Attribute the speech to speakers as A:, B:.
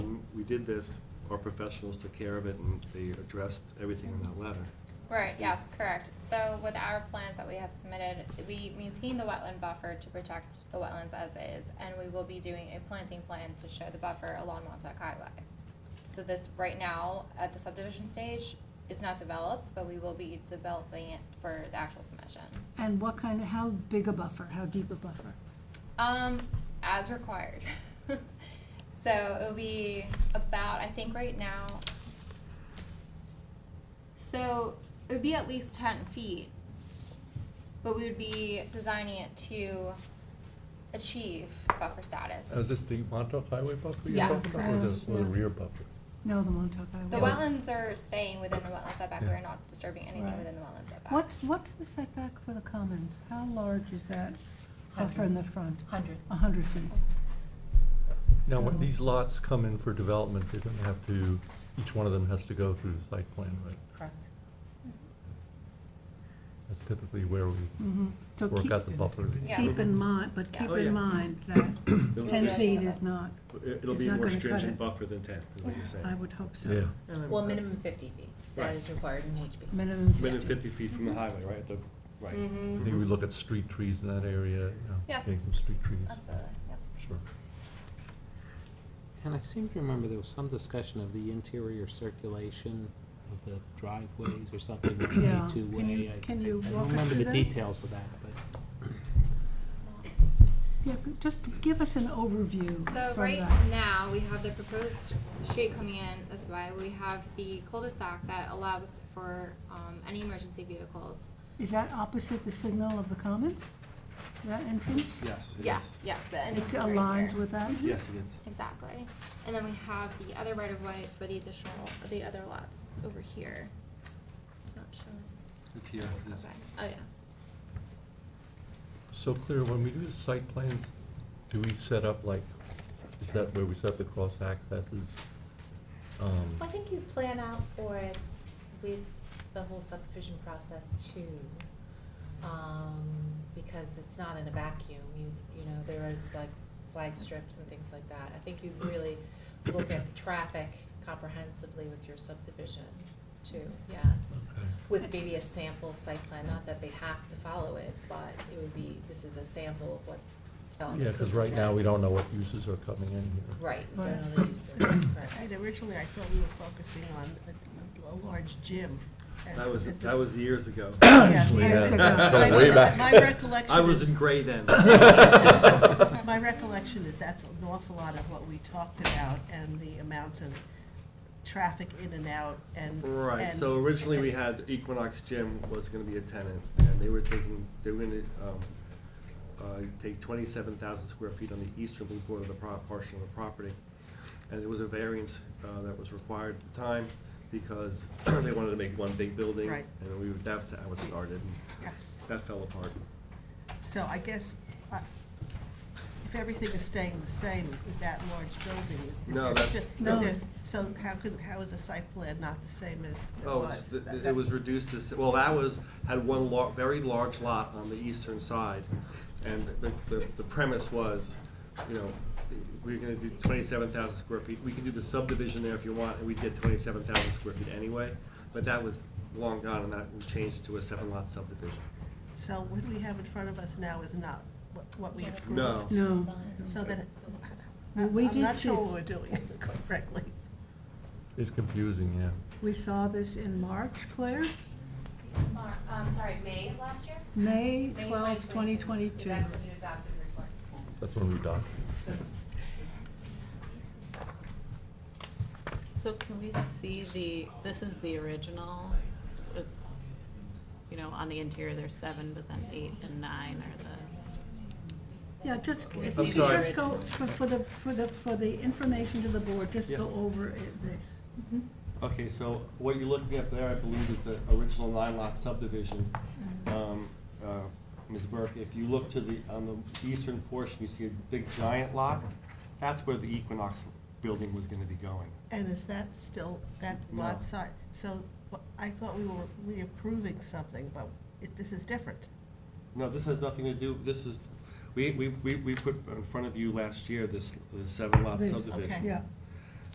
A: did this, our professionals took care of it, and they addressed everything in that letter.
B: Right, yes, correct. So with our plans that we have submitted, we maintain the wetland buffer to protect the wetlands as is, and we will be doing a planting plan to show the buffer along Montauk Highway. So this, right now, at the subdivision stage, is not developed, but we will be developing it for the actual submission.
C: And what kind of, how big a buffer, how deep a buffer?
B: Um, as required. so it'll be about, I think right now, so it would be at least 10 feet, but we would be designing it to achieve buffer status.
D: Oh, Is this the Montauk Highway buffer you're
B: Yes,
D: talking about, or
C: correct.
D: the, or the
C: Yeah.
D: rear buffer?
C: No, the Montauk
B: the
C: Highway.
B: wetlands are staying within the wetland setback. We're not disturbing anything
C: Right.
B: within the wetland setback.
C: What's, what's the setback for the commons? How large is that
E: Oh,
C: buffer in the front?
E: Hundred.
C: A hundred feet?
D: Now,
C: So-
D: when these lots come in for development, they're gonna have to, each one of them has to go through the site plan, right?
E: Correct.
D: That's typically where we
C: Mhm. So
D: work
C: keep,
D: out the buffer.
B: Yeah.
C: keep in mind, but keep
A: Oh, yeah.
C: in mind that
A: It'll-
C: ten
B: Yeah.
C: feet is not,
A: It'll
C: It's
A: be a
C: not
A: more
C: gonna cut
A: stringent
C: it.
A: buffer than ten, is what you're saying.
C: I would hope so.
E: Well, minimum fifty feet, that
A: Right.
E: is required in HB.
C: Minimum
A: Within
C: fifty.
A: fifty feet from the highway, right, the, right.
D: I think we look at street trees in that area, you know,
B: Yes.
D: getting some street trees.
B: Absolutely. Yep.
D: Sure.
F: And I seem to remember there was some discussion of the interior circulation of the driveways or something, like
C: Yeah. Can you-
F: two-way. I-
C: can you walk
F: I-
C: us
F: I don't remember
C: through
F: the
C: that?
F: details of that, but.
C: Yeah, just give us an overview from
B: So
C: that.
B: right now, we have the proposed street coming in this way. We have the cul-de-sac that allows for um, any emergency vehicles.
C: Is that opposite the signal of the commons? That entrance?
A: Yes, it
B: Yes,
A: is.
B: yes, the
C: It
B: entrance is right
C: aligns
B: here.
C: with that?
A: Yes, it is.
B: Exactly. And then we have the other right of way for the additional, the other lots over here. It's not showing.
A: It's here.
B: Okay, oh yeah.
D: So clear, when we do the site plans, do we set up like, is that where we set the cross accesses? Um,
E: I think you plan out for it with the whole subdivision process too. Um, because it's not in a vacuum, you, you know, there is like flag strips and things like that. I think you really look at the traffic comprehensively with your subdivision too, yes.
D: okay.
E: with maybe a sample site plan, not that they have to follow it, but it would be, this is a sample of what development.
D: Yeah, because right now, we don't know what uses are coming in here.
E: Right, we don't know
C: Right.
E: the uses, correct.
G: Right, originally I thought we were focusing on a, a- a large gym. as-
A: That was,
G: as the-
A: that was years ago.
G: Yes,
C: Yeah.
G: years ago.
C: Go
G: My-
D: way back.
G: My recollection
A: I was
G: is-
A: in gray then.
G: My recollection is that's an awful lot of what we talked about and the amount of traffic in and out and.
A: Right,
G: and-
A: so originally we had Equinox Gym was gonna be a tenant, and they were taking, they were gonna, um, uh, take twenty-seven thousand square feet on the easterly border of the pro- portion of the property. And there was a variance, uh, that was required at the time, because they wanted to make one big building.
G: Right.
A: And we, that's how it started, and
G: Yes,
A: that fell apart.
G: so I guess, uh, if everything is staying the same with that large building, is- is
A: No,
G: there
A: that's-
G: still,
C: No.
G: is there, s- so how could, how is a site plan not the same as it was?
A: Oh, it's, th-
G: That-
A: th- it
G: that-
A: was reduced to, s- well, that was, had one lar- very large lot on the eastern side. And the, the, the premise was, you know, we're gonna do twenty-seven thousand square feet, we can do the subdivision there if you want, and we did twenty-seven thousand square feet anyway. But that was long gone, and that, we changed it to a seven lot subdivision.
G: So what we have in front of us now is not what, what we approved.
A: No.
C: No.
G: So then,
C: Well, we
G: I'm
C: did
G: not
C: see-
G: sure what we're doing, quite frankly.
D: It's confusing, yeah.
C: We saw this in March, Claire,
H: Mar, um, sorry, May of last year?
C: May
H: May
C: 12, 2022.
H: That's when you adopted the report.
D: That's when we dock.
I: So can we see the, this is the original with, you know, on the interior there's seven, but then eight and nine are the,
C: Yeah, just, if
A: I'm
C: you could
A: sorry.
C: just go, for for the, for the, for the information to the board, just
A: Yeah.
C: go over it, this.
A: Okay, so what you're looking at there, I believe, is the original nine lot subdivision. Um, uh, Ms. Burke, if you look to the, on the eastern portion, you see a big giant lot. That's where the Equinox building was gonna be going.
G: And is that still, that
A: No.
G: lot size? So wha- I thought we were reapproving something, but it- this is different.
A: No, this has nothing to do, this is, we, we, we we put in front of you last year, this this seven lot
C: This,
A: subdivision.
G: okay.
C: Yeah,